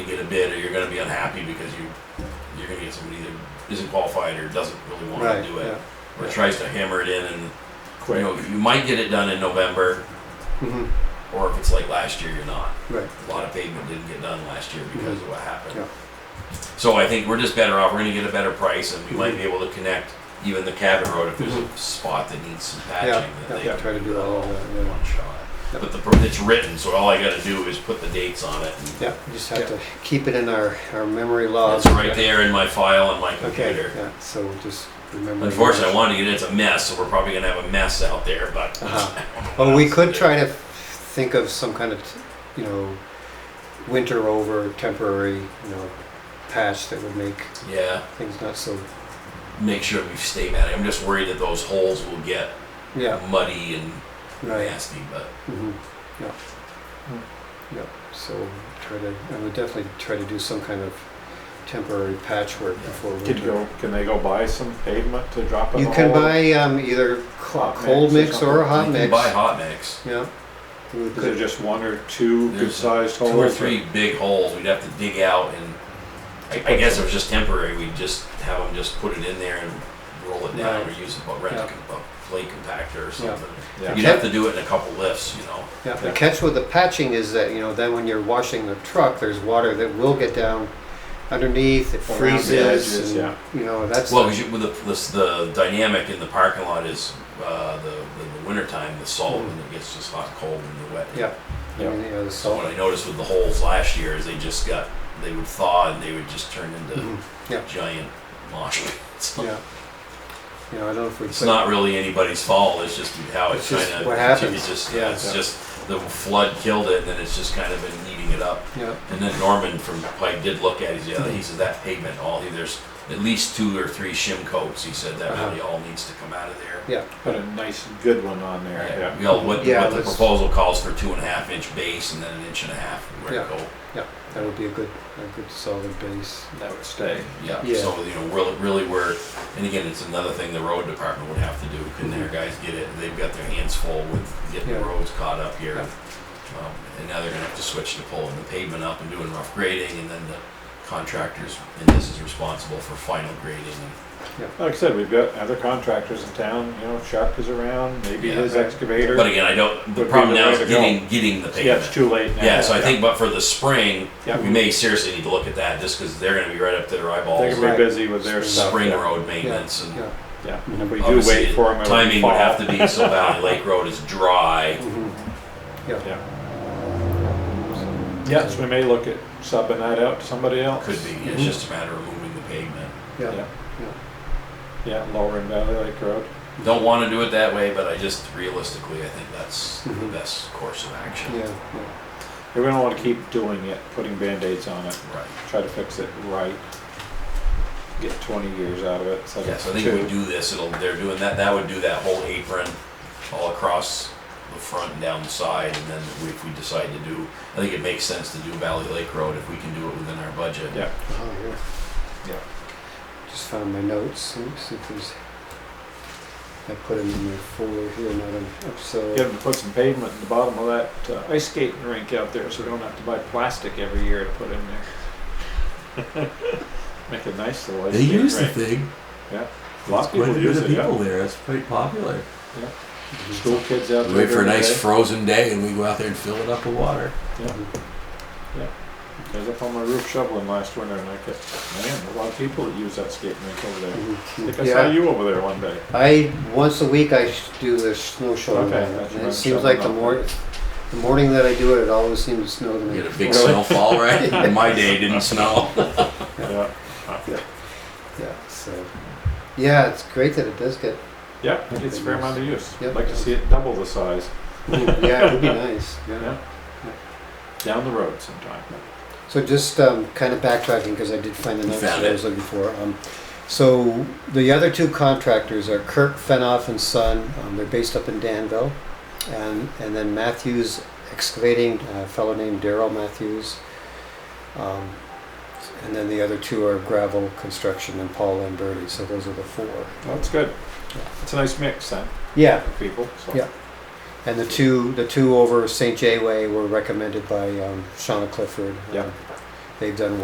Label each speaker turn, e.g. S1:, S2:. S1: bid, or you're gonna be unhappy because you, you're gonna get somebody that isn't qualified or doesn't really wanna
S2: Right,
S1: do it.
S2: yeah.
S1: Or
S2: yeah.
S1: tries to hammer it in and, you
S2: Quick.
S1: know, you might get it done in November,
S2: Mhm,
S1: or if it's like last year, you're not.
S2: Right,
S1: A lot of pavement didn't get done last year because of what
S2: Mm-hmm. Yeah. Mm-hmm.
S1: happened. So I think we're just better off, we're gonna get a better price and we might be able to connect even the Cabot Road if there's a spot that needs some
S2: yeah,
S1: patching that they
S2: yeah, try to do that all,
S1: in
S2: yeah,
S1: one shot.
S2: Yep.
S1: But the, per- it's written, so all I gotta do is put the dates on it. and
S2: yeah, we just have to keep it in our, our memory logs.
S1: It's right there in my file on my
S2: Oh, Okay,
S1: computer.
S2: yeah, so we'll just remember.
S1: Unfortunately, I wanted to get it, it's a mess, so we're probably gonna have a mess out there, but.
S2: Uh-huh. Well, we could try to think of some kind of, you know, winter over temporary, you know, patch that would make
S1: Yeah,
S2: things not so,
S1: make sure we stay mad. I'm just worried that those holes will get
S2: yeah,
S1: muddy and
S2: right.
S1: nasty, but.
S2: Mhm, Yeah. Yep, so try to, I would definitely try to do some kind of temporary patchwork before
S3: Could
S2: winter.
S3: you go, can they go buy some pavement to drop in
S2: You
S3: the
S2: can
S3: hole?
S2: buy um, either co-
S3: Hot
S2: cold
S3: mix
S2: mix
S3: or
S2: or a hot
S1: You
S2: mix.
S1: can buy hot mix.
S2: Yeah. We
S3: Is there
S2: could-
S3: just one or two
S1: There's
S3: good sized holes?
S1: two or three big holes we'd have to dig out and I, I guess it was just temporary, we'd just have them just put it in there and roll it down or use a, bu- rent a, com- a plate compactor or something.
S3: Yeah.
S1: You'd have to do it in a couple lifts, you know,
S2: Yeah, the catch with the patching is that, you know, then when you're washing the truck, there's water that will get down underneath, it
S3: Around the
S2: freezes,
S3: edges, yeah.
S2: and, you know, that's.
S1: well, 'cause you, with the, this, the dynamic in the parking lot is, uh, the, the, the winter time, the salt, and it gets just hot cold and wet.
S2: Mm-hmm. Yeah. I
S3: Yeah.
S2: mean, you know, the
S1: So what
S2: salt.
S1: I noticed with the holes last year is they just got, they would thaw and they would just turn into
S2: Mhm, Yeah,
S1: giant mosh pits.
S2: yeah. You know, I don't know if we.
S1: It's
S2: put-
S1: not really anybody's fault, it's just how it's
S2: It's just
S1: kind of.
S2: what happens.
S1: It's just,
S2: Yeah.
S1: yeah, it's just, the flood killed it, and then it's just kind of been eating it up.
S2: Yeah,
S1: And then Norman from Pike did look at it, he's, yeah, he says that pavement, all, there's at least two or three shim coats, he said that
S2: Uh-huh.
S1: really all needs to come out of there.
S2: yeah,
S3: Put a nice good one on there, yeah.
S1: You know, what, what
S2: Yeah,
S1: the
S2: let's-
S1: proposal calls for two and a half inch base and then an inch and a half where
S2: Yeah.
S1: to go.
S2: yeah, that would be a good, a good solid base.
S3: That would stay.
S1: Yeah,
S2: Yeah.
S1: so, you know, really, really we're, and again, it's another thing the road department would have to do, can their guys get it, they've got their hands full with getting the
S2: Yeah.
S1: roads caught up here.
S2: Yeah.
S1: Um, And now they're gonna have to switch to pulling the pavement up and doing rough grading, and then the contractors, and this is responsible for final grading. and-
S3: Like I said, we've got other contractors in town, you know, Sharp is around, maybe
S1: Yeah.
S3: his excavator.
S1: But again, I don't, the
S3: Would be
S1: problem
S3: the
S1: now
S3: way
S1: is
S3: to go.
S1: getting, getting the
S3: Yeah, it's
S1: pavement.
S3: too late now.
S1: Yeah, so I think, but for the spring,
S3: Yeah.
S1: we may seriously need to look at that, just because they're gonna be right up to their
S3: They're
S1: eyeballs,
S3: gonna
S2: Right.
S3: be busy with their stuff.
S1: spring
S3: yeah.
S1: road
S2: Yeah,
S1: maintenance and.
S2: Yeah,
S3: Yeah, and if we do
S1: Obviously,
S3: wait for him, it'll
S1: Timing would have
S3: fall.
S1: to be so Valley Lake Road is dry.
S2: mhm, yeah.
S3: Yeah,
S2: so,
S3: yeah, so we may look at subbing that out to somebody else.
S1: Could be,
S3: Mm-hmm.
S1: it's just a matter of moving the pavement.
S2: Yeah,
S3: Yeah, yeah, lowering Valley Lake Road.
S1: Don't want to do it that way, but I just realistically, I think that's
S3: Mm-hmm.
S1: the
S2: Mhm.
S1: best course of
S2: yeah,
S1: action.
S2: yeah,
S3: We're gonna wanna keep doing it, putting Band-Aids on it.
S1: Right.
S3: try to fix it right. Get 20 years out of it. So
S1: Yeah,
S3: that's
S1: so I think
S3: two.
S1: if we do this, it'll, they're doing that, that would do that whole apron all across the front and down the side, and then we- if we decide to do, I think it makes sense to do Valley Lake Road if we can do it within our budget.
S3: Yeah.
S2: oh, yeah.
S3: Yeah.
S2: Just found my notes, and see if there's, I put them in my folder here, not in, so.
S3: Get them to put some pavement in the bottom of that uh, ice skating rink out there so we don't have to buy plastic every year to put in there. Make a nice little ice
S4: They
S3: skating
S4: use the
S3: rink.
S4: thing.
S3: A lot of
S4: Quite
S3: people
S4: a bit
S3: use
S4: of
S3: it. yeah.
S4: people there. It's pretty popular.
S2: Mhm.
S3: School kids out there.
S4: Wait for a
S3: during the
S4: nice
S3: day.
S4: frozen day, and we go out there and fill it up with water.
S3: I was up on my roof shoveling last winter and I kept, man, a lot of people that use that skating rink over there. I think I saw
S2: Mm-hmm. Yeah,
S3: you over there one day.
S2: I, once a week I sh- do the snow shoveling,
S3: Okay,
S2: on it,
S3: that's
S2: and
S3: right,
S2: it seems like the
S3: shoveling
S2: more, the morning that I do it, it always seems to snow to
S1: We
S2: me.
S1: Get a big
S3: Really?
S4: snowfall, right? In my day, it didn't snow.
S3: Yeah.
S2: Yeah, so, yeah, it's great that it does get,
S3: Yeah, it's a fair amount of use.
S2: Yep.
S3: Like to see it double the size.
S2: yeah, it would be nice, yeah.
S3: Yeah. Down the road sometime.
S2: So just um, kind of backtracking, because I did find the
S4: You
S2: notes
S4: found
S2: that I
S4: it.
S2: was looking for. Um, So the other two contractors are Kirk Fenoff and Son. Um, They're based up in Danville. And, and then Matthews Excavating, a fellow named Daryl Matthews. Um, And then the other two are Gravel Construction and Paul Lamberti. So those are the four.
S3: Well, that's good. It's a nice mix then
S2: Yeah,
S3: of people. So.
S2: Yeah. And the two, the two over St. J Way were recommended by um, Shauna Clifford.
S3: Yeah.
S2: Um, They've done